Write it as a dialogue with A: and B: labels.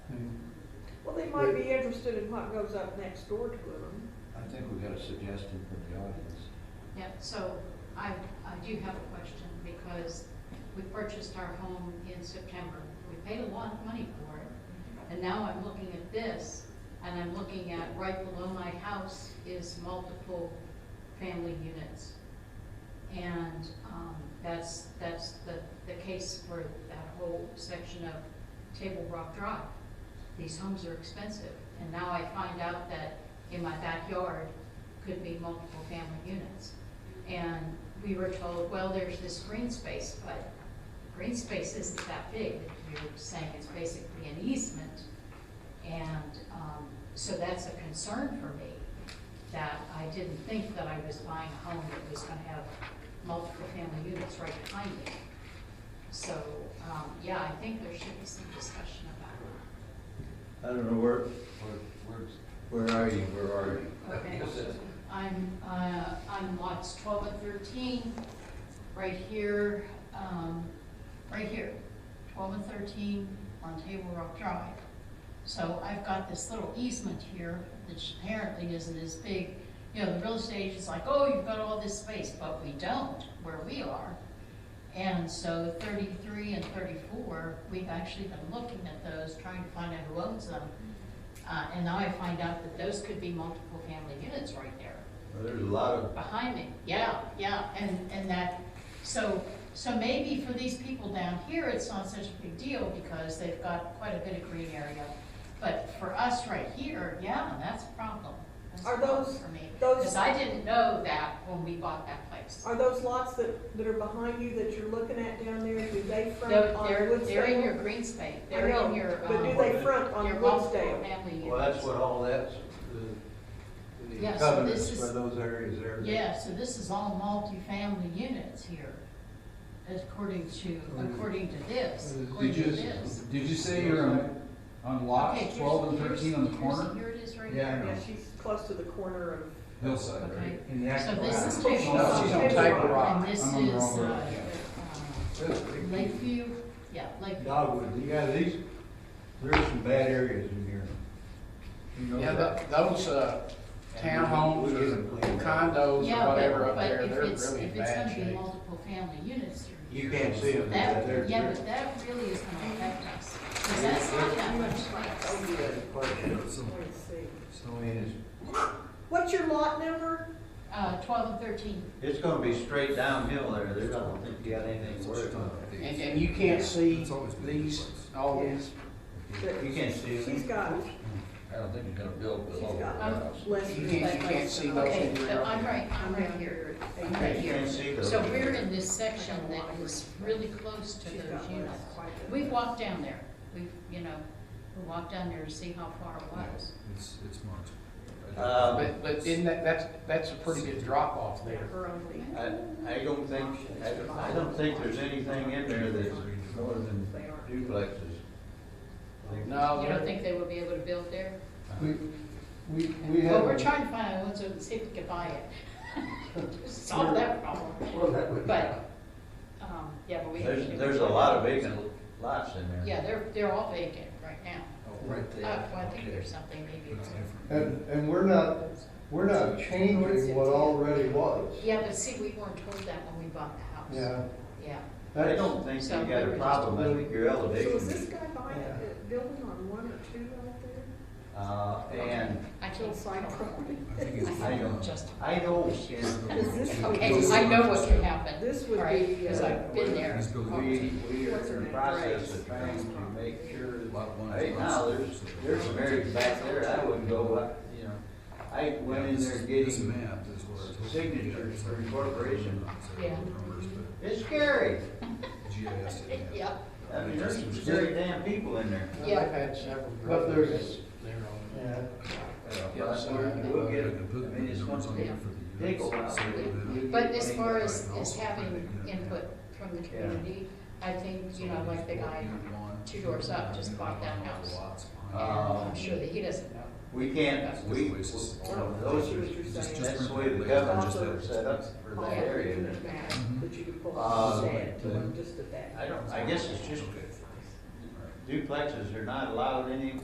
A: They might be interested in what goes up next door to them.
B: I think we got a suggestion from the audience.
C: Yeah, so I, I do have a question because we purchased our home in September. We paid a lot of money for it. And now I'm looking at this and I'm looking at right below my house is multiple family units. And, um, that's, that's the, the case for that whole section of Table Rock Drive. These homes are expensive. And now I find out that in my backyard could be multiple family units. And we were told, well, there's this green space, but green space isn't that big. You're saying it's basically an easement. And, um, so that's a concern for me, that I didn't think that I was buying a home that was gonna have multiple family units right behind it. So, um, yeah, I think there should be some discussion about
D: I don't know where,
B: Where, where's,
D: where are you, where are you?
C: it. Okay. I'm, uh, on lots twelve and thirteen, right here, um, right here, twelve and thirteen on Table Rock Drive. So I've got this little easement here, which apparently isn't as big. You know, the real estate agent's like, oh, you've got all this space, but we don't where we are. And so thirty-three and thirty-four, we've actually been looking at those, trying to find out who owns them. Uh, and now I find out that those could be multiple family units right there
D: Well, There's a lot of,
C: behind me. Yeah, yeah, and, and that, so, so maybe for these people down here, it's not such a big deal because they've got quite a bit of green area. But for us right here, yeah, that's a problem. That's a
A: Are
C: problem
A: those-
C: For me,
A: those-
C: because I didn't know that when we bought that place.
A: Are those lots that, that are behind you that you're looking at down there, do they front
C: They're,
A: on
C: they're,
A: Woodsdale?
C: they're in your green space,
A: I
C: they're
A: know,
C: in your, um,
A: But do they front on
C: your multiple
A: Woodsdale?
C: family units.
D: well, that's what all that's, the, the
C: Yeah, so
D: covenants
C: this
D: for
C: is-
D: those areas there.
C: Yeah, so this is all multifamily units here, according to, according to this, according
E: Did
C: to
E: you,
C: this.
E: did you say you're on, on
C: Okay,
E: lots
C: here's-
E: twelve and
C: here's-
E: thirteen on the
C: here's-
E: corner?
C: Here it is right
E: Yeah, I
C: here.
A: Yeah, she's close to the corner of,
E: Hillside,
C: Okay,
E: right?
D: In the
C: so
D: actual
C: this
D: house.
C: is
A: Wow.
C: Table
A: No,
C: Rock.
A: she's on Table
E: Rock.
C: And this
E: I'm on the
C: is,
E: wrong road.
C: uh,
D: That's
C: uh,
D: pretty cool.
C: Lakeview, yeah, Lakeview.
D: Dogwood, you got these, there's some bad areas in here. You know
F: Yeah, tho- those, uh, townhomes or condos
C: Yeah,
F: or whatever
C: but,
F: up
C: but
F: there,
C: if
F: they're
C: it's,
F: really in
C: if it's
F: bad
C: gonna be
F: shape.
C: multiple family units, you're.
D: You can't see them, but
C: That,
D: there's.
C: yeah, but that really is gonna affect us, because that's not that much space.
A: let me see.
D: So, I mean, it's,
A: What's your lot number?
C: Uh, twelve and thirteen.
D: it's gonna be straight downhill there, there's, I don't think you got anything to worry about.
F: And, and you can't see these, all these,
D: You can't see them.
A: She's got,
B: I don't think you're gonna build
A: she's
B: the whole
A: got
B: house.
A: less
F: you
A: than.
F: can't, you can't see those.
C: Okay,
F: in your-
C: but I'm right, I'm
A: I'm
C: right
A: down here
C: here.
A: at
C: I'm
A: eight.
C: right here.
D: Can't see those.
C: So we're in this section that is really close to
A: She's
C: those
A: got less,
C: units.
A: quite a bit.
C: We've walked down there, we've, you know, we walked down there to see how far it was.
E: It's, it's
D: Uh,
E: marginal.
F: But, but isn't that, that's, that's a pretty good drop off there.
A: Her only,
D: I, I don't think, I, I don't think there's anything in there that's more than
A: they are.
D: duplexes.
F: No,
C: You don't
F: they're-
C: think they would be able to build there?
E: We, we, we
C: Well,
E: have,
C: we're
E: a-
C: trying to find out what's open, see if we can buy it. Solve that problem. But, um, yeah, but we.
D: There's, there's a lot of vacant lots in there.
C: Yeah, they're, they're all vacant right now.
B: Right
C: Uh, well, I think there's something maybe. it's-
E: and, and we're not, we're not changing what already was.
C: Yeah, but see, we weren't told that when we bought the house.
E: Yeah,
C: Yeah.
D: I don't think you got a problem, I think your
A: So is this
D: elevation,
A: guy buying a a building on one or two right there?
D: uh, and
C: I can't
A: Hillside property?
D: I know, I know in,
A: Is this?
C: Okay, I know what can happen,
A: This would
C: right,
A: be,
C: because
A: uh,
C: I've been there.
D: we, we are in the process of trying to make sure that, hey, now, there's, there's some areas back there, I wouldn't go up, you know. I went in there getting signatures for incorporation.
C: Yeah.
D: It's scary.
E: GIS
C: Yeah,
D: I mean, there's some scary damn people in there.
F: I've
C: Yeah.
F: had several.
E: But there's-
F: They're on there.
E: Yeah.
D: Yeah, so we'll get, I mean, it's one thing, pickle out there.
C: but as far as, as having input from the community, I think, you know, like the guy two doors up just bought that house. And I'm sure that he doesn't know.
D: We can't, we, we- those are, that's the way the government's are set up for that area.
A: That Oh, you could pull
D: Uh,
A: up and to one just at that.
D: I don't, I guess it's just duplexes are not allowed any